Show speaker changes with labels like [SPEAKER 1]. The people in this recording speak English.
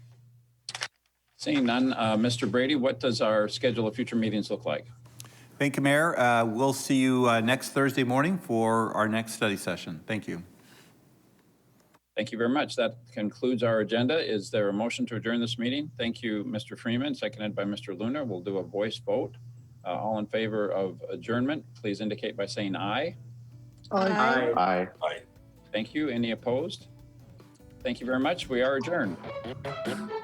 [SPEAKER 1] Seeing none, uh, Mr. Brady, what does our schedule of future meetings look like?
[SPEAKER 2] Thank you, Mayor. Uh, We'll see you uh, next Thursday morning for our next study session. Thank you.
[SPEAKER 1] Thank you very much. That concludes our agenda. Is there a motion to adjourn this meeting? Thank you, Mr. Freeman, seconded by Mr. Luna. We'll do a voice vote. Uh, All in favor of adjournment, please indicate by saying aye.
[SPEAKER 3] Aye.
[SPEAKER 4] Aye.
[SPEAKER 1] Thank you. Any opposed? Thank you very much. We are adjourned.